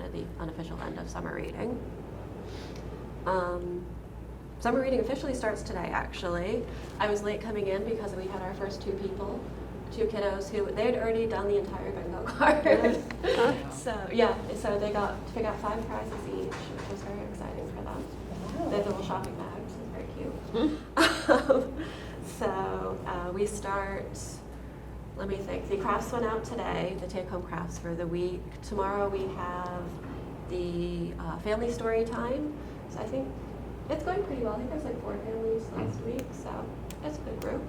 at the unofficial end of summer reading. Um, summer reading officially starts today, actually. I was late coming in because we had our first two people, two kiddos who they had already done the entire bingo card. so yeah, so they got to pick out five prizes each, which was very exciting for them. They had little shopping bags, it was very cute. um, so uh, we start let me think. The crafts went out today, the take home crafts for the week. Tomorrow we have the uh, family story time. So I think it's going pretty well. I think there's like four families last week, so it's a good group.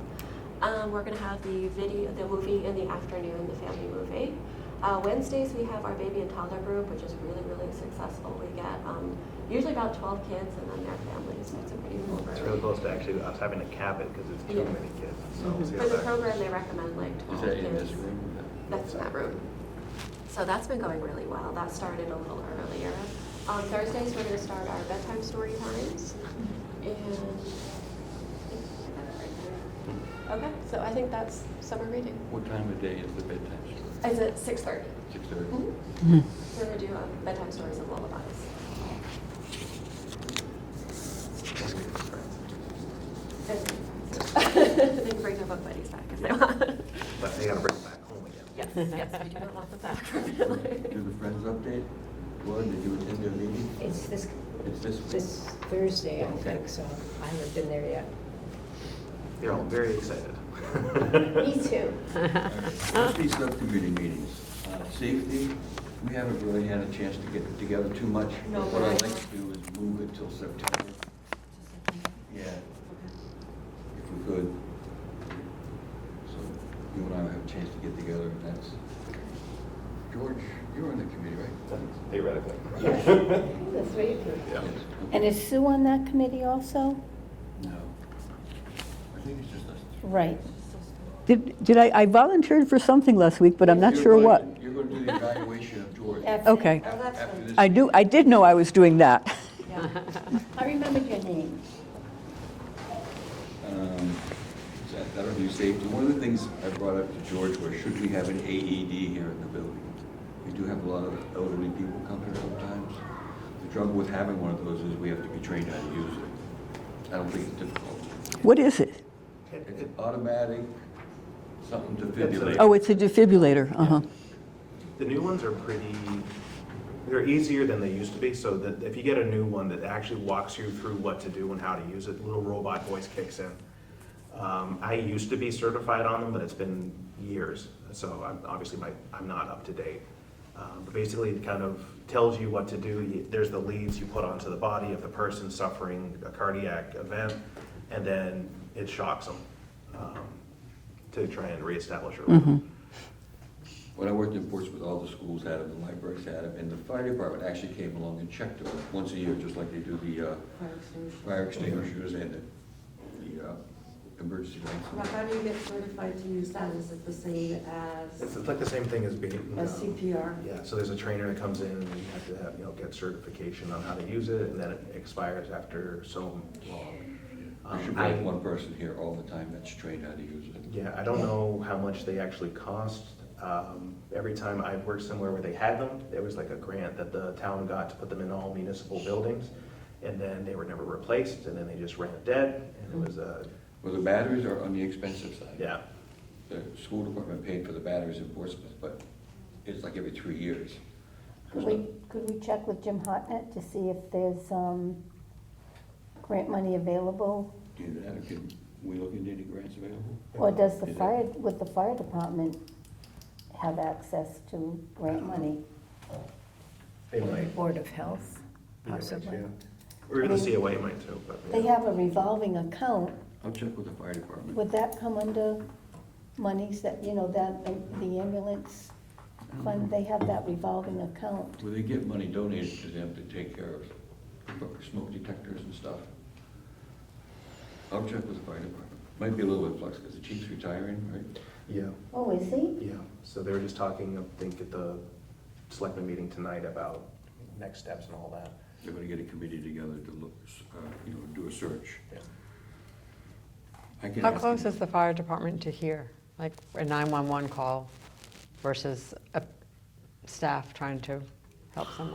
Um, we're going to have the video, the movie in the afternoon, the family movie. Uh, Wednesdays we have our baby and toddler group, which is really, really successful. We get um, usually about 12 kids and then their families, so it's a pretty cool group. It's really close to actually us having to cap it because it's too Yeah. Mm-hmm. many kids. So it's For the like- program, they recommend like 12 Is that in kids. this room? That's in that room. So that's been going really well. That started a little earlier. On Thursdays, we're going to start our bedtime story times. And okay, so I think that's summer reading. What time of day is the bedtime story? Is it six thirty? Mm-hmm. Six thirty? Mm-hmm. We're going to do um, bedtime stories and lullabies. And- they can bring their book buddies back if they want. But they gotta bring it back home again. Yes, yes, we do not want them back. Do the Friends update? Glenn, did you attend their meeting? It's this, It's this week? this Thursday, I Okay. think, so I haven't been there yet. They're all very excited. too. Let's be subcommittee meetings. Uh, Safety, we haven't really had a chance to get together too much. No, What I'd right. like to do is move it till September. Yeah, if we could. So you and I will have a chance to get together and that's, George, you're on the committee, right? Theoretically. That's right. Yeah. Yes, okay. And is Sue on that committee also? No. I think it's just us. Right. Did, did I, I volunteered for something last week, but I'm not You're sure going- what. You're going to do the evaluation of George. That's it. Okay. af- oh, after this I do, I did know I was doing that. I remembered your name. Um, so that- That'll be safety. One of the things I brought up to George was, should we have an AED here in the building? We do have a lot of elderly people come here sometimes. The trouble with having one of those is we have to be trained how to use it. I don't think it's difficult. What is it? It- It's it- an automatic, something to It's a- defibrillate. Oh, it's a defibrillator, uh-huh. The new ones are pretty, they're easier than they used to be, so that if you get a new one that actually walks you through what to do and how to use it, the little robot voice kicks in. Um, I used to be certified on them, but it's been years, so I'm, obviously my, I'm not up to date. Um, but basically, it kind of tells you what to do. You- There's the leads you put onto the body of the person suffering a cardiac event, and then it shocks them um, to try and reestablish your. When I worked in Portsmouth, all the schools had them, the libraries had them, and the fire department actually came along and checked them once a year, just like they do the uh, fire extinguishers and the- the uh, emergency But lights. how do you get certified to use that? Is it the same It's, as it's like the same thing as being. as um, CPR? Yeah, so there's a trainer that comes in and you have to have, you know, get certification on how to use it and then it expires after so long. We Um, should I- have one person here all the time that's trained how to use it. Yeah, I don't know how much they actually cost. Um, every time I've worked somewhere where they had them, there was like a grant that the town got to put them in all municipal buildings. And then they were never replaced and then they just ran dead and Hmm. it was a, Well, the batteries are on the expensive side. yeah. The school department paid for the batteries in Portsmouth, but it's like every three years. Could we, could we check with Jim Hartnett to see if there's um, grant money available? Do that, can we look into any grants available? Or does the Is it- fire, would the fire department have access to grant money? They might, Board of Health, possibly. or even the COA might too, but. yeah. They have a revolving account. I'll check with the fire department. Would that come under monies that, you know, that, the ambulance Mm-hmm. fund, they have that revolving account? Well, they get money donated to them to take care of smoke detectors and stuff. I'll check with the fire department. Might be a little bit flux, because the chief's retiring, right? Yeah. Oh, is he? Yeah, so they were just talking, I think, at the selectmen meeting tonight about next steps and all that. They're gonna get a committee together to look, uh, you know, do a search. Yeah. I can How ask close them. is the fire department to here? Like a 911 call versus a staff trying to help someone?